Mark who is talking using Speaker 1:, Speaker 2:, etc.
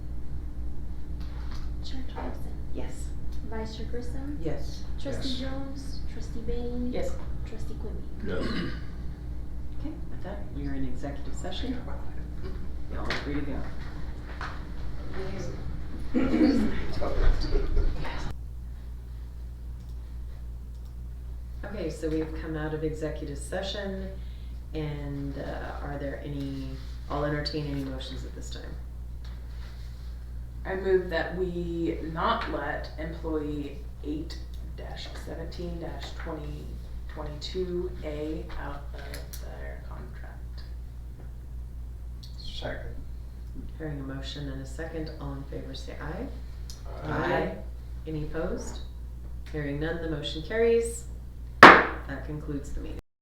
Speaker 1: Chair Thompson,
Speaker 2: Yes.
Speaker 1: Vice Chair Grissom,
Speaker 2: Yes.
Speaker 1: Trustee
Speaker 3: Yes.
Speaker 1: Jones, Trustee Bain.
Speaker 2: Yes.
Speaker 1: Trustee Quimby.
Speaker 3: Yes.
Speaker 2: Okay, with that, we are in executive session. Y'all are free to go. Okay, so we've come out of executive session, and uh, are there any, I'll entertain any motions at this time.
Speaker 4: I move that we not let employee eight seventeen twenty twenty-two A out of their contract.
Speaker 3: Second.
Speaker 2: Hearing a motion and a second, all in favor say aye.
Speaker 4: Aye.
Speaker 2: Any opposed? Hearing none, the motion carries. That concludes the meeting.